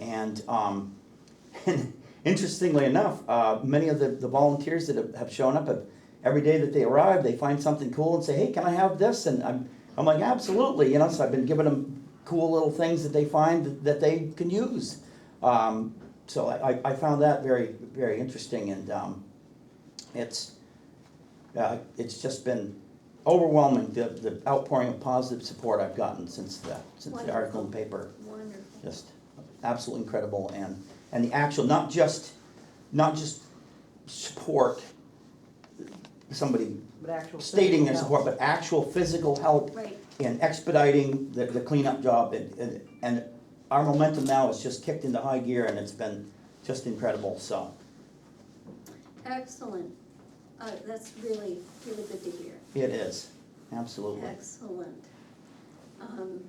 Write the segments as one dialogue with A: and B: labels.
A: And, um, interestingly enough, uh, many of the, the volunteers that have, have shown up have, every day that they arrive, they find something cool and say, hey, can I have this? And I'm, I'm like, absolutely, you know, so I've been giving them cool little things that they find that, that they can use. Um, so I, I, I found that very, very interesting and, um, it's, uh, it's just been overwhelming, the, the outpouring of positive support I've gotten since the, since the article in the paper
B: Wonderful.
A: just absolutely incredible and, and the actual, not just, not just support, somebody
C: But actual.
A: stating their
C: physical
A: support,
C: health.
A: but actual physical help
B: Right,
A: in expediting the, the cleanup job and, and, and our momentum now is just kicked into high gear and it's been just incredible, so,
B: excellent. Uh, that's really, really good to hear.
A: it is, absolutely.
B: Excellent. Um,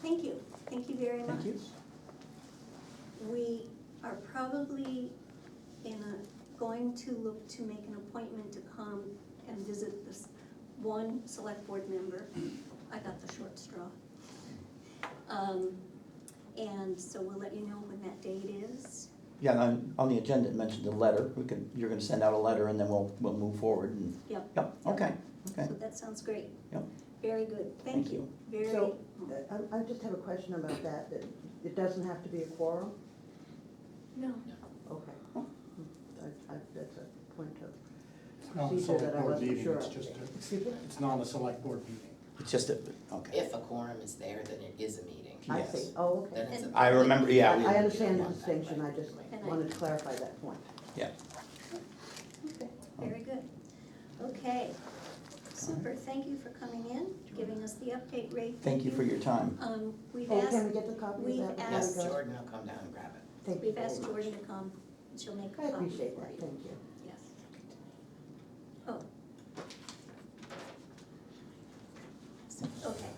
B: Thank you, thank you very much.
A: Thank you.
B: We are probably in a, going to look to make an appointment to come and visit this one select board member. I got the short straw. Um, And so we'll let you know when that date is.
A: Yeah, and on, on the agenda, it mentioned the letter, we can, you're gonna send out a letter and then we'll, we'll move forward and,
B: Yep,
A: yep, okay, okay,
B: so that sounds great.
A: Yep.
B: Very good,
A: Thank
B: thank you, very.
C: So, I, I just have a question about that, that it doesn't have to be a quorum?
B: No.
C: Okay. Hmm. I, I, that's a point of
D: Not a
C: procedure
D: select
C: that I
D: board
C: wasn't
D: meeting,
C: sure
D: it's
C: of.
D: just, a-
C: Excuse me?
D: it's not a select board meeting.
A: it's just a, okay.
E: If a quorum is there, then it is a meeting.
C: I
A: Yes.
C: see, oh,
E: Then
C: okay.
E: it's a
A: I remember, yeah,
C: I
A: we-
C: I understand the distinction, I just wanted to clarify that point.
B: Okay, very good. Okay, super, thank you for coming in, giving us the update, Ray.
A: Thank you for your time.
B: Um, we've
C: Oh, can
B: asked,
C: we get the copy
B: we've
C: of that? before we
E: Yes,
B: asked-
C: go?
E: Jordan will come down and grab it.
C: Thank you
B: we've
C: very
B: asked
C: much.
B: Jordan to come, she'll make a
C: I
B: copy.
C: appreciate
B: for you.
C: that, thank you.
B: Yes. Oh. So, Okay,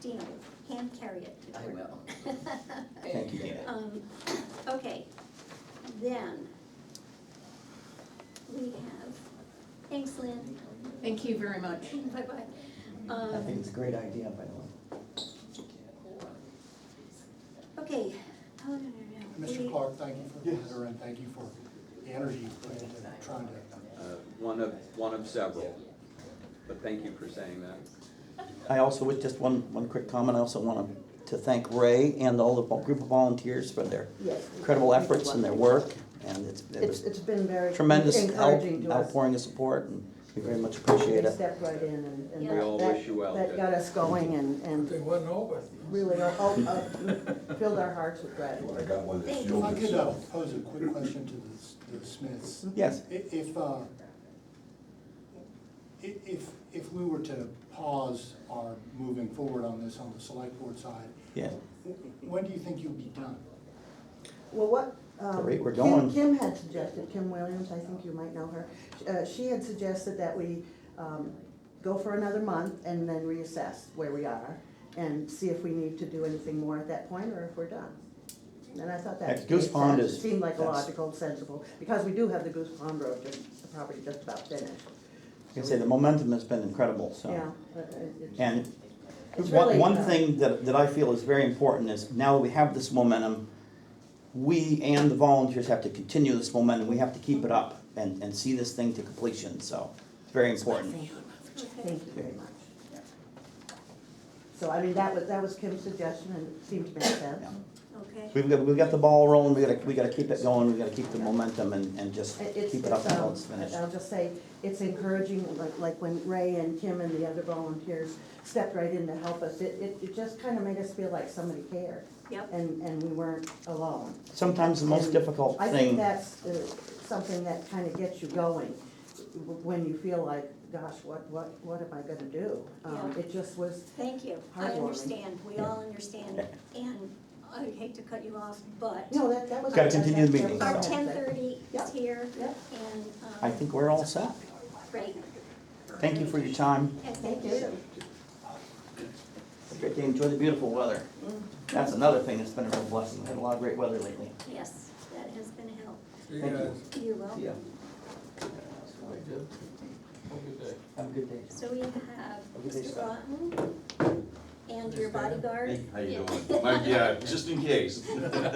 B: Dina, hand carry it to
E: I
B: Jordan.
E: will.
A: Thank you, Dana.
B: Um, okay, then, we have, thanks Lynn,
F: Thank you very much.
B: bye-bye.
A: I
B: Um,
A: think it's a great idea, by the way.
B: Okay, oh, no, no, no.
D: Mr.
B: We-
D: Clark, thank you for the letter and thank you for the energy you put into trying to
G: Uh, One of, one of several, but thank you for saying that.
A: I also, with just one, one quick comment, I also want to thank Ray and all the vol- group of volunteers for their
C: Yes.
A: incredible efforts and their work, and it's, it
C: It's,
A: was
C: it's been very
A: tremendous help,
C: encouraging to us.
A: outpouring of support, and we very much
C: They
A: appreciate it.
C: stepped right in and, and
B: We
G: all
C: that-
G: wish you well,
C: That
G: Dick.
C: got us going and, and
H: wasn't over.
C: really, oh, uh, filled our hearts with gratitude.
H: I got one
B: Thank
H: that's
B: you.
D: If
H: fueled
D: I could uh,
H: itself.
D: pose a quick question to the S- the Smiths.
A: Yes,
D: I- If, uh, i- if, if we were to pause our moving forward on this on the select board side,
A: yeah,
D: w- when do you think you'll be done?
C: Well, what, um.
A: The rate we're
C: Kim-
A: going.
C: Kim had suggested, Kim Williams, I think you might know her, uh, she had suggested that we, um, go for another month and then reassess where we are and see if we need to do anything more at that point or if we're done. And I thought that.
A: That Goose
C: made
A: Pond
C: sense.
A: is-
C: It Seemed like a
A: that's-
C: logical, sensible, because we do have the Goose Pond Road, just, the property just about finished.
A: I can say the momentum has been incredible,
C: Yeah.
A: so.
C: but it- it's-
A: And
C: It's
A: One,
C: really,
A: one
C: uh,
A: thing that, that I feel is very important is now that we have this momentum, we and the volunteers have to continue this momentum, we have to keep it up and, and see this thing to completion, so, it's very important.
B: Okay,
C: Thank you very much. So I mean, that was, that was Kim's suggestion and it seemed to make sense.
B: okay,
A: We've got, we've got the ball rolling, we gotta, we gotta keep it going, we gotta keep the momentum and, and just
C: It- It's,
A: keep it up
C: it's,
A: until
C: um,
A: it's finished.
C: I'll just say, it's encouraging, like, like when Ray and Kim and the other volunteers stepped right in to help us, it, it, it just kind of made us feel like somebody cared
B: yep,
C: and, and we weren't alone.
A: Sometimes the most
C: And
A: difficult
C: I think
A: thing,
C: that's uh, something that kind of gets you going, w- when you feel like, gosh, what, what, what am I gonna do? Um,
B: Yeah.
C: It just was,
B: thank you, I
C: Heartwarming.
B: understand, we all understand, and I hate to cut you off, but
C: no, that, that was.
A: Gotta continue the
C: that-
A: meeting,
C: that
B: our
C: was-
A: so.
B: ten thirty
C: Yeah.
B: is here,
C: Yeah.
B: and, um.
A: I think we're all set.
B: Great,
A: Thank you for your time.
B: and
C: Thank
B: thank you.
C: you.
A: Have a great day, enjoy the beautiful weather.
C: Mm-hmm.
A: That's another thing that's been a real blessing, we had a lot of great weather lately.
B: Yes, that has been a help,
A: Thank you.
B: you're welcome.
A: Yeah.
H: day.
A: Have a good day.
B: So we have
A: Have a good day,
B: Mr.
A: Scott.
B: Rotten and your bodyguard.
I: Hey, how you doing? Mike, yeah, just in case.